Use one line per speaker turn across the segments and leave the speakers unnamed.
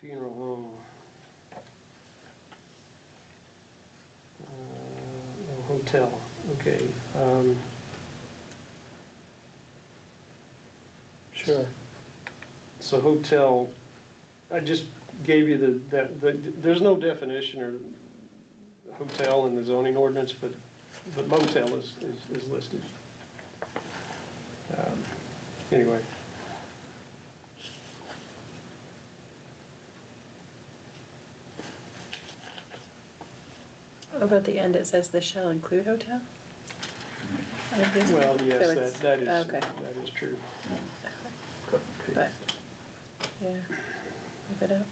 funeral home. Uh, no, Hotel, okay. um,
Sure.
So hotel, I just gave you the, that, the- there's no definition or hotel in the zoning ordinance, but but motel is, is is listed. Um, Anyway.
Over at the end, it says this shall include hotel?
Well,
So
yes,
it's-
that, that is,
Okay,
that is true.
but, yeah, move it up.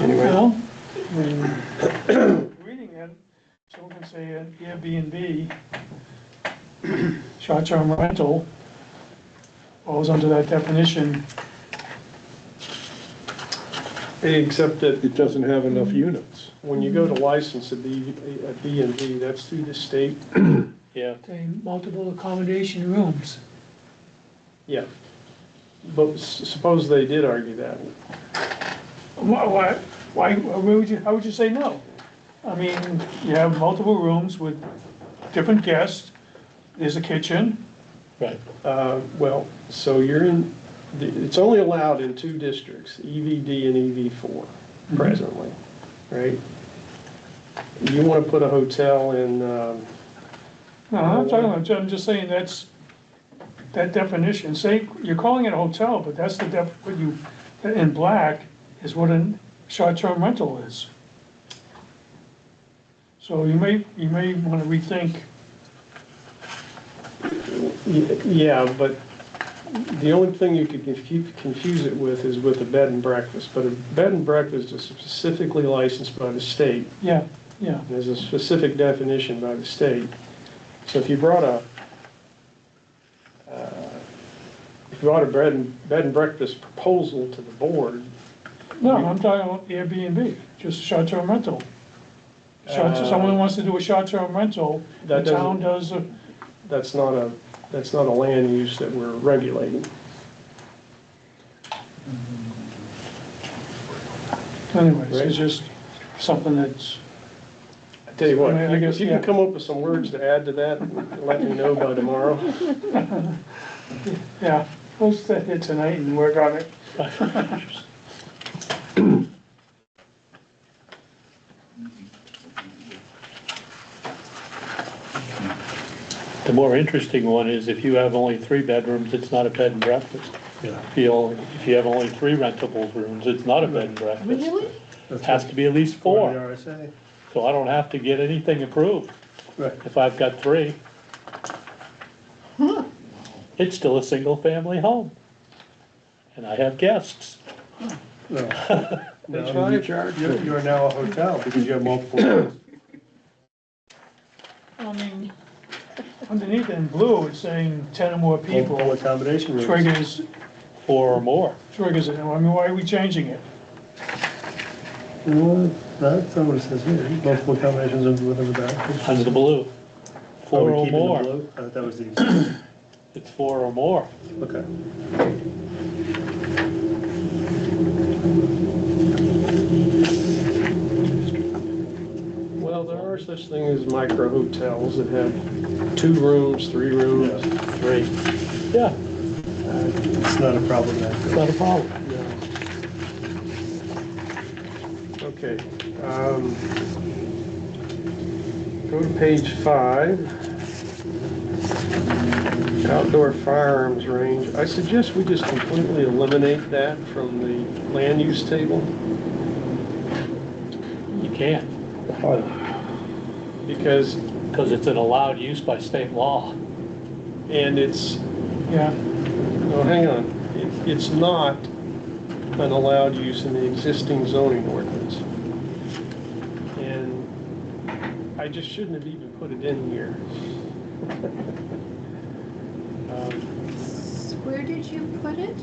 Anyway,
Well, when reading it, someone can say an Airbnb, short-term rental, falls under that definition.
except that
It doesn't have enough units.
when you go to license a B, a B and B, that's through the state. Yeah.
Say multiple accommodation rooms.
Yeah. But s- suppose they did argue that.
Why, why, why why would you, how would you say no? I mean, you have multiple rooms with different guests, there's a kitchen,
Right. Uh, well, so you're in, the- it's only allowed in two districts, EVD and EV four presently, right? You wanna put a hotel in, um,
No, I'm talking about, I'm just saying that's, that definition, say, you're calling it a hotel, but that's the def, what you, in black is what a short-term rental is. So you may, you may wanna rethink,
Y- Yeah, but the only thing you could confu- confuse it with is with a bed and breakfast. But a bed and breakfast is specifically licensed by the state.
yeah, yeah,
There's a specific definition by the state. So if you brought a, uh, if you brought a bread and, bed and breakfast proposal to the board,
no, I'm talking about Airbnb, just short-term rental. Short,
Uh,
someone wants to do a short-term rental, the
That doesn't-
town does, a-
that's not a, that's not a land use that we're regulating.
anyways,
Right.
it's just something that's,
I tell you what,
I mean, I
if you-
guess,
if you
yeah.
can come up with some words to add to that, let me know by tomorrow.
yeah, we'll sit here tonight and work on it.
The more interesting one is if you have only three bedrooms, it's not a bed and breakfast. If you, only- if you have only three rentable rooms, it's not a bed and breakfast.
Really?
It Has to be at least four,
RSA.
so I don't have to get anything approved
Right.
if I've got three. It's still a single-family home. And I have guests.
No.
That's
No, you
right.
charge, you you are now a hotel because you have multiple units.
I mean, underneath in blue, it's saying ten or more
Multiple
people
accommodation rooms.
triggers,
Four or more.
triggers it, I mean, why are we changing it?
Well, That's not what it says here, multiple accommodations under whatever that.
Under the blue.
Are we
Four or
keeping the
more.
blue? Uh, That was the,
It's four or more.
okay.
Well, there are such things as micro hotels that have two rooms, three rooms.
Three. Yeah,
It's not a problem.
it's not a problem.
Okay. um, Go to page five. Outdoor firearms range. I suggest we just completely eliminate that from the land use table
You can't,
because,
because it's an allowed use by state law.
and it's,
Yeah,
no, hang on. It- It's not an allowed use in the existing zoning ordinance. And I just shouldn't have even put it in here. Um,
Where did you put it?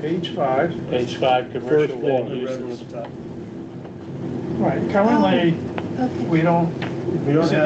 Page five,
Page five,
First
commercial
one,
land
the red one at
uses.
the top.
right, currently,
Okay.
we don't
We don't
Is it
have